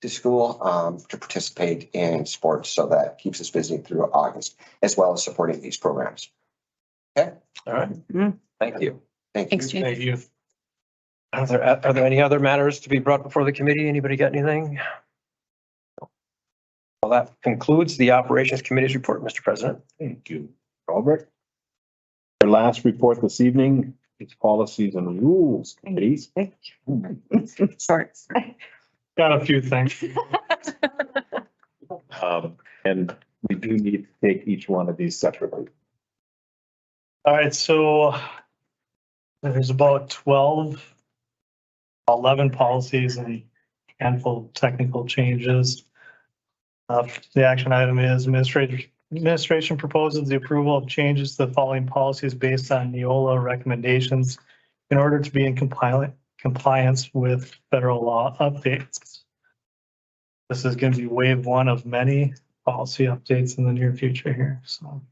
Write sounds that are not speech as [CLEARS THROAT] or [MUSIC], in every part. to school um, to participate in sports. So that keeps us busy through August, as well as supporting these programs. All right, Mm. thank you. Thank you. Thanks, Jay. Thank you. Are there, are there any other matters to be brought before the committee? Anybody got anything? Well, that concludes the Operations Committee's report, Mr. President. Thank you, Albert. Our last report this evening is policies and rules committees. Shorts. Got a few things. Um, and we do need to take each one of these separately. All right, so there's about 12, 11 policies and handful of technical changes. Uh, The action item is administration, administration proposes the approval of changes to the following policies based on Neola recommendations in order to be in compliant, compliance with federal law updates. This is going to be wave one of many policy updates in the near future here, so.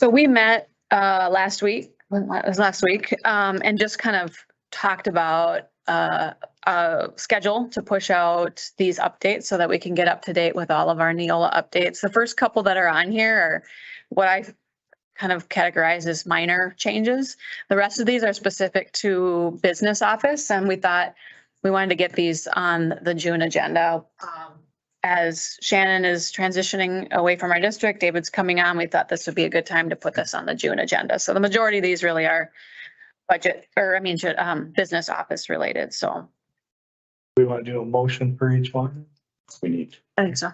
So we met uh, last week, when la- it was last week, um, and just kind of talked about uh, a schedule to push out these updates so that we can get up to date with all of our Neola updates. The first couple that are on here are what I kind of categorize as minor changes. The rest of these are specific to business office, and we thought we wanted to get these on the June agenda. Um, as Shannon is transitioning away from our district, David's coming on, we thought this would be a good time to put this on the June agenda. So the majority of these really are budget, or I mean, ju- um, business office related, so. We want to do a motion for each one. We need. I think so.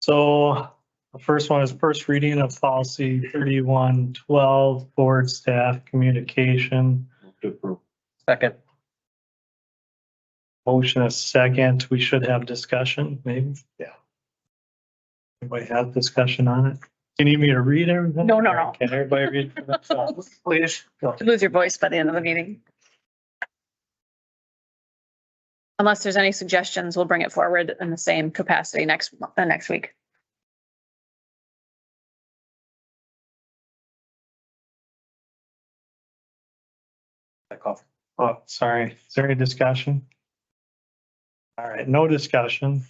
So the first one is first reading of policy thirty-one twelve, board staff communication. to approve. Second. Motion a second. We should have discussion, maybe. Yeah. Anybody have discussion on it? Do you need me to read everything? No, no, no. Can everybody read for [LAUGHS] themselves? Please. You Lose your voice by the end of the meeting. Unless there's any suggestions, we'll bring it forward in the same capacity next, mo- uh, next week. Oh, sorry. Is there any discussion? All right, no discussion.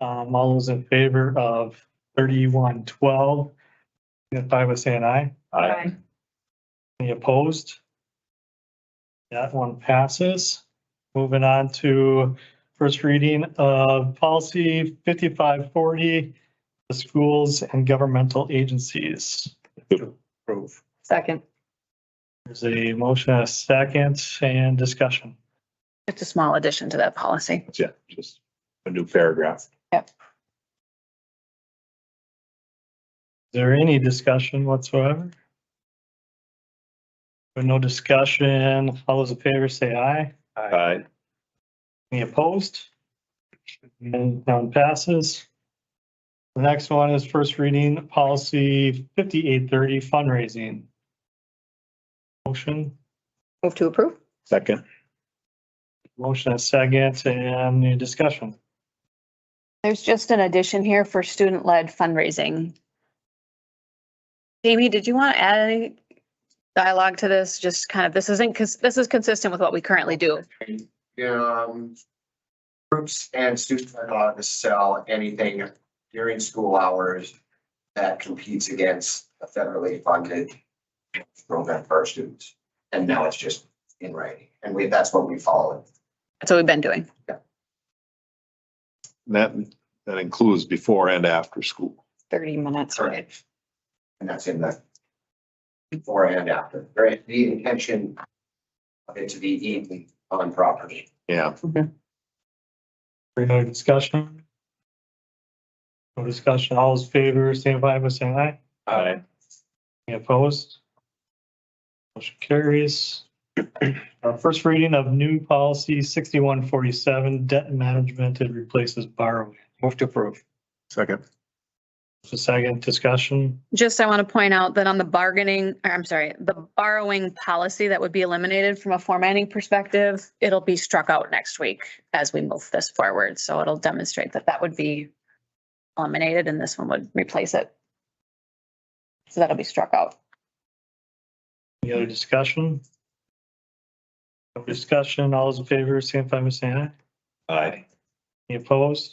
Um, all those in favor of thirty-one twelve, signify by saying aye. Aye. Any opposed? That one passes. Moving on to first reading of policy fifty-five forty, the schools and governmental agencies. To Approve. Second. There's a motion, a second, and discussion. It's a small addition to that policy. Yeah, just a new paragraph. Is there any discussion whatsoever? With no discussion, all those in favor say aye. Aye. Any opposed? And none passes. The next one is first reading policy fifty-eight thirty fundraising. Motion, Move to approve. Second. motion and second, and any discussion. There's just an addition here for student-led fundraising. Jamie, did you want to add any dialogue to this? Just kind of, this isn't, because this is consistent with what we currently do. Um, groups and students are allowed to sell anything during school hours that competes against a federally funded program for our students. And now it's just in writing, and we, that's what we follow. That's what we've been doing. That, that includes before and after school. Thirty minutes. Correct. And that's in the before and after, right? The intention of it to be eaten on property. Yeah, Any other discussion? No discussion, all those in favor, signify by saying aye. Aye. Any opposed? Motion carries. [CLEARS THROAT] Our first reading of new policy sixty-one forty-seven, debt management it replaces borrowing. Move to approve. second. Just a second discussion. Just, I want to point out that on the bargaining, or I'm sorry, the borrowing policy that would be eliminated from a formatting perspective, it'll be struck out next week as we move this forward. So it'll demonstrate that that would be eliminated and this one would replace it. So that'll be struck out. Any other discussion? No discussion, all those in favor, signify by saying aye. Aye. Any opposed?